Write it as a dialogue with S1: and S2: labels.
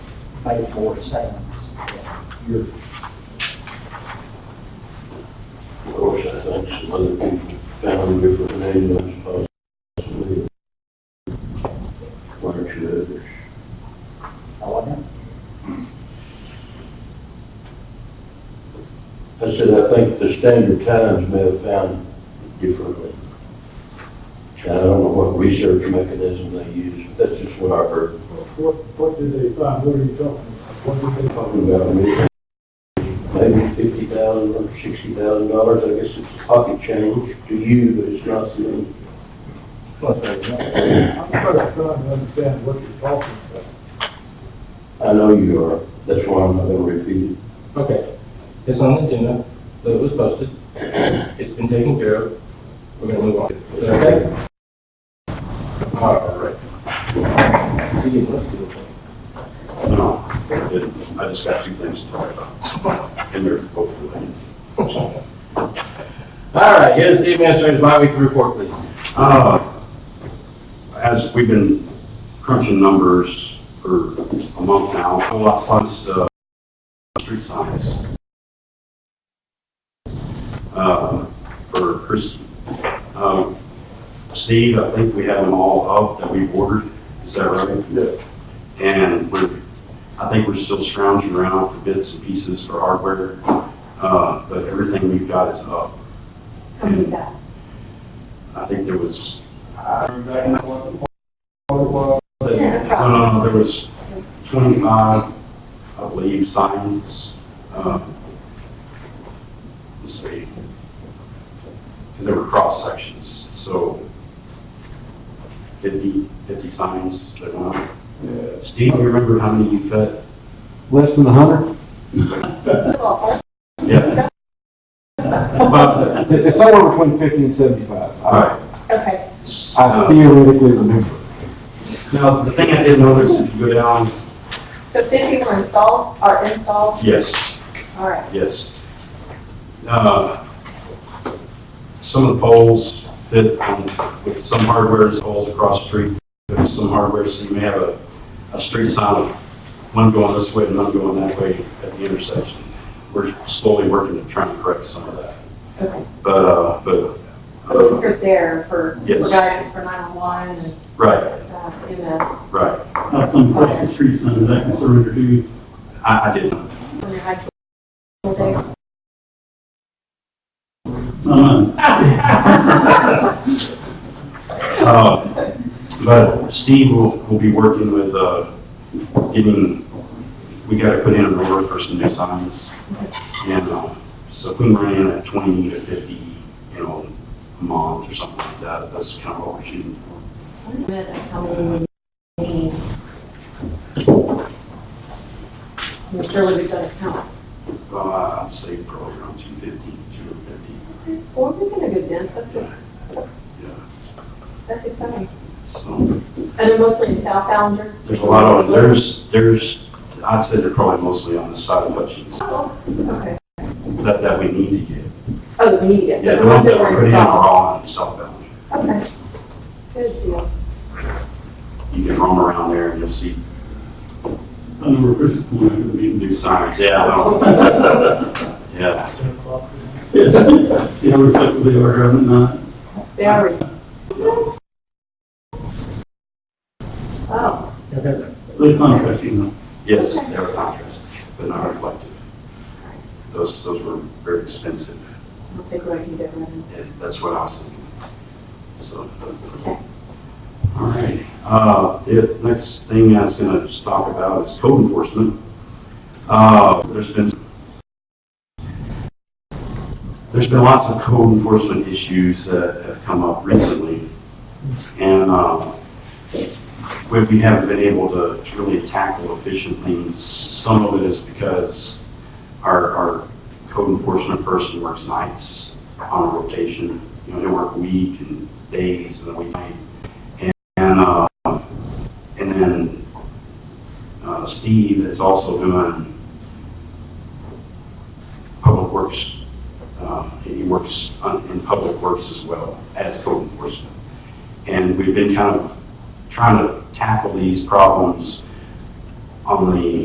S1: paid for sounds. You're,
S2: Of course, I think some other people found different names possibly. Weren't you others?
S1: Oh, I wasn't,
S2: I said, I think the Standard Times may have found it differently. And I don't know what research mechanism they use, but that's just what I heard.
S3: What, what did they find, what are you talking about? What did they,
S2: Talking about a million, maybe fifty thousand or sixty thousand dollars, I guess it's pocket change to you, but it's not to me.
S1: plus there was nothing.
S3: I'm trying to understand what you're talking about.
S2: I know you are, that's why I'm not gonna repeat it.
S4: Okay, it's on the agenda, that it was posted, it's been taken care of, we're gonna move on. Is that okay? All right. So you must do it.
S5: No, it- I just got two things to talk about, and they're both related.
S4: All right, here's the city administrator's bi-weekly report, please.
S5: Uh, As we've been crunching numbers for a month now, a lot plus uh, street signs uh, for Chris. Um, Steve, I think we have them all up that we've ordered, is that right? And we're, I think we're still scrounging around for bits and pieces for hardware, uh, but everything we've got is up.
S6: How many is that?
S5: I think there was uh,
S6: Yeah,
S5: No, no, no, there was 25, I believe, signs. um, Let's see. Because there were cross sections, so 50, 50 signs that went up. Steve, you remember how many you cut?
S7: Less than a hundred?
S6: Well,
S5: Yeah. About,
S7: It- It's somewhere between fifty and seventy-five.
S5: all
S7: I-
S5: right.
S6: Okay,
S7: I
S5: Uh,
S7: theoretically remember.
S5: Now, the thing I did notice, if you go down,
S6: so 50 were installed, are installed,
S5: yes,
S6: all right.
S5: Yes. Uh, Some of the poles fit on- with some hardware, it's poles across the street, with some hardware, so you may have a, a street sign, with one going this way and one going that way at the intersection. We're slowly working to try and correct some of that.
S6: Okay.
S5: But, uh, but,
S6: Those
S5: uh,
S6: are there for, for
S5: Yes.
S6: guidance for 911 and
S5: right,
S6: uh, EMS
S5: right.
S8: How come across the street sign is that conservative to you?
S5: I, I didn't.
S6: when you're high school days.
S8: Uh,
S5: Uh, But Steve will, will be working with, uh, getting, we gotta put in an order for some new signs. And, uh, so if we run in at twenty to fifty, you know, a month or something like that, that's kind of what we're shooting for.
S6: What is it, how many we need? I'm sure we've done a count.
S5: Uh, I'd say probably around two fifty, two fifty,
S6: Well, we're making a good dent, that's good,
S5: yeah.
S6: that's exciting.
S5: So,
S6: And they're mostly in South Ballinger?
S5: there's a lot of, there's, there's, I'd say they're probably mostly on the side of Hutchins
S6: Oh, Okay.
S5: that, that we need to get.
S6: Oh, we need to get.
S5: Yeah, the ones that we're putting in are all on South Valley.
S6: Okay. Good deal.
S5: you can roam around there and you'll see
S8: I know where Chris is going after the meeting.
S5: new signs, Oh. yeah, I don't- yeah.
S8: Yes. See how reflective they are driving at night?
S6: They are. Oh,
S8: They contract you know.
S5: Yes, they were contrast, but not reflective. Those, those were very expensive,
S6: I'll take what I can get right now.
S5: and that's what I was thinking. So,
S6: Okay.
S5: all right. Uh, the next thing I was gonna just talk about is code enforcement. Uh, there's been, there's been lots of code enforcement issues that have come up recently. And, um, we, we haven't been able to, to really tackle efficiently. Some of it is because our, our code enforcement person works nights on a rotation. You know, they work week and days and the weeknight. And, and, uh, and then, uh, Steve is also doing public works, uh, he works on- in public works as well as code enforcement. And we've been kind of trying to tackle these problems on the